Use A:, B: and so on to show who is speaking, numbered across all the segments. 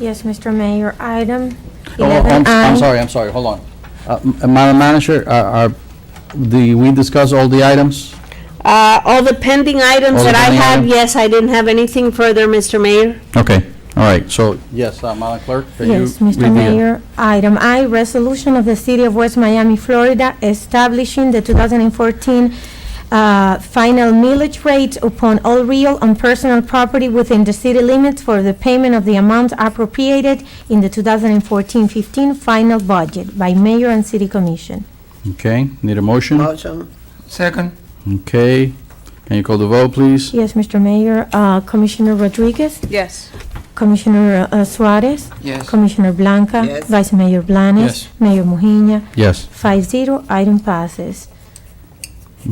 A: Yes, Mr. Mayor, item
B: Oh, I'm- I'm
A: 11I.
B: sorry, I'm sorry, hold on. Uh, M- Madam Manager, are, are the, we discussed all the items?
C: Uh, all the pending items
B: All the
C: that I
B: pending
C: have,
B: items?
C: yes, I didn't have anything further, Mr. Mayor.
B: Okay, all right, so, yes, uh, Madam Clerk? can you
A: Yes,
B: read the-
A: Mr. Mayor, item I, resolution of the City of West Miami, Florida, establishing the 2014 uh, final millage rate upon all real and personal property within the city limits for the payment of the amount appropriated in the 2014-15 final budget by mayor and city commission.
B: Okay, need a motion?
D: Motion.
E: Second,
B: Okay, can you call the vote, please?
A: Yes, Mr. Mayor, uh, Commissioner Rodriguez,
F: yes,
A: Commissioner uh, Suarez,
E: yes.
A: Commissioner Blanca.
D: Yes.
A: Vice Mayor Blanes.
B: Yes.
A: Mayor Mujina.
B: Yes,
A: Five zero, item passes.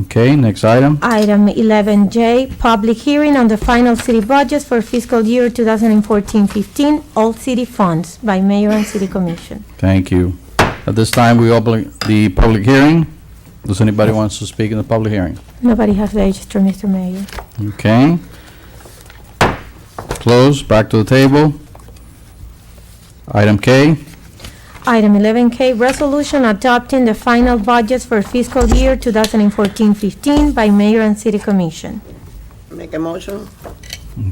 B: okay, next item?
A: Item 11J, public hearing on the final city budgets for fiscal year 2014-15, all city funds by mayor and city commission.
B: Thank you. At this time, we open the public hearing. Does anybody wants to speak in the public hearing?
A: Nobody has registered, Mr. Mayor.
B: Okay. Close, back to the table. Item K,
A: Item 11K, resolution adopting the final budgets for fiscal year 2014-15 by mayor and city commission.
D: Make a motion.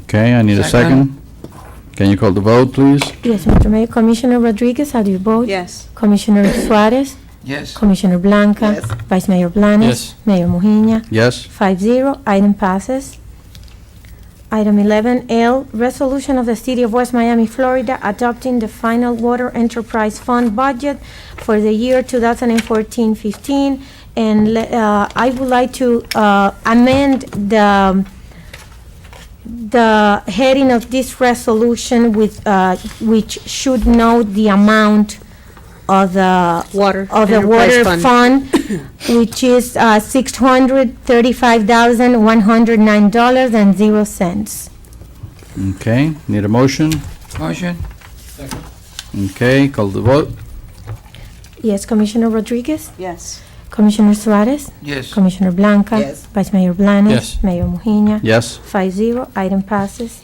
B: okay, I need a second.
E: Second.
B: Can you call the vote, please?
A: Yes, Mr. Mayor, Commissioner Rodriguez, how do you vote?
F: yes,
A: Commissioner Suarez,
E: Yes,
A: Commissioner Blanca.
D: Yes.
A: Vice Mayor Blanes.
B: Yes.
A: Mayor Mujina.
B: Yes,
A: Five zero, item passes. Item eleven L, resolution of the City of West Miami, Florida, adopting the final water enterprise fund budget for the year 2014-15. And le- uh, I would like to uh, amend the, um, the heading of this resolution with, uh, which should note the amount of the
C: Water.
A: of the
C: Enterprise
A: water fund, which is uh, $635,109.00.
B: okay, need a motion?
E: motion,
B: Okay, call the vote?
A: Yes, Commissioner Rodriguez,
F: yes,
A: Commissioner Suarez,
E: yes.
A: Commissioner Blanca.
D: Yes.
A: Vice Mayor Blanes.
B: Yes.
A: Mayor Mujina.
B: Yes.
A: Five zero, item passes.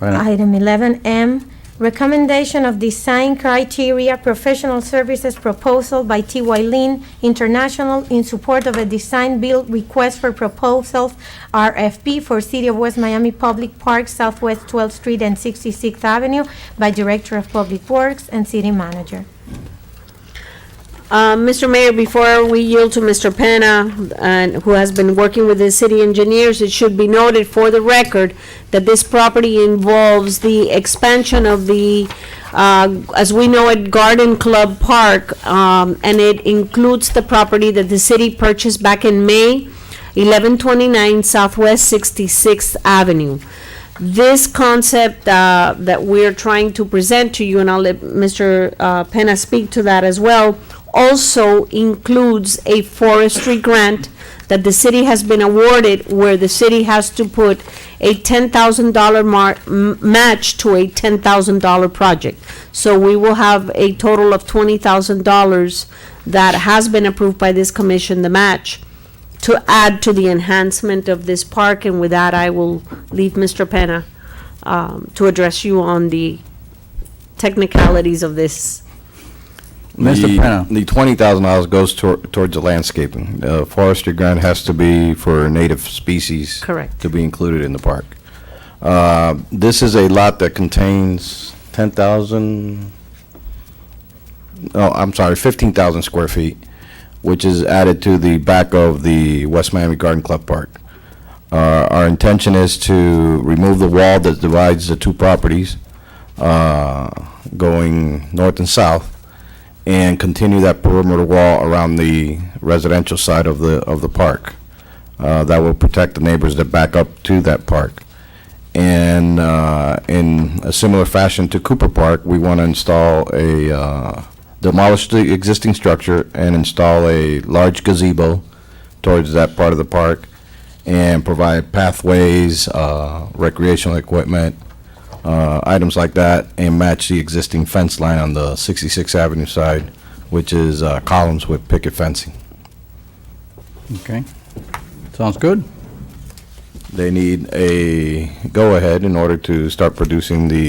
B: Item-
A: Item 11M, recommendation of design criteria professional services proposal by T.Y. Lin International in support of a design build request for proposals, RFP, for City of West Miami Public Parks, Southwest 12th Street and 66th Avenue by Director of Public Works and City Manager.
C: Uh, Mr. Mayor, before we yield to Mr. Penna, and who has been working with the city engineers, it should be noted for the record that this property involves the expansion of the, uh, as we know it, Garden Club Park, um, and it includes the property that the city purchased back in May, 1129 Southwest 66th Avenue this concept uh, that we're trying to present to you, and I'll let Mr. uh, Penna speak to that as well, also includes a forestry grant that the city has been awarded where the city has to put a $10,000 mar- m- match to a $10,000 project. So we will have a total of $20,000 that has been approved by this commission, the match to add to the enhancement of this park, and with that, I will leave Mr. Penna um, to address you on the technicalities of this.
B: Mr.
G: The-
B: Penna.
G: The twenty thousand dollars goes tor- towards the landscaping. Uh, Forestry grant has to be for native species.
C: Correct.
G: To be included in the park. Uh, This is a lot that contains ten thousand, oh, I'm sorry, fifteen thousand square feet, which is added to the back of the West Miami Garden Club Park. Uh, Our intention is to remove the wall that divides the two properties, uh, going north and south, and continue that perimeter wall around the residential side of the, of the park. Uh, That will protect the neighbors that back up to that park. And uh, in a similar fashion to Cooper Park, we want to install a, uh, demolish the existing structure and install a large gazebo towards that part of the park and provide pathways, uh, recreational equipment, uh, items like that and match the existing fence line on the 66th Avenue side, which is uh, columns with picket fencing.
B: Okay. Sounds good?
G: They need a go-ahead in order to start producing the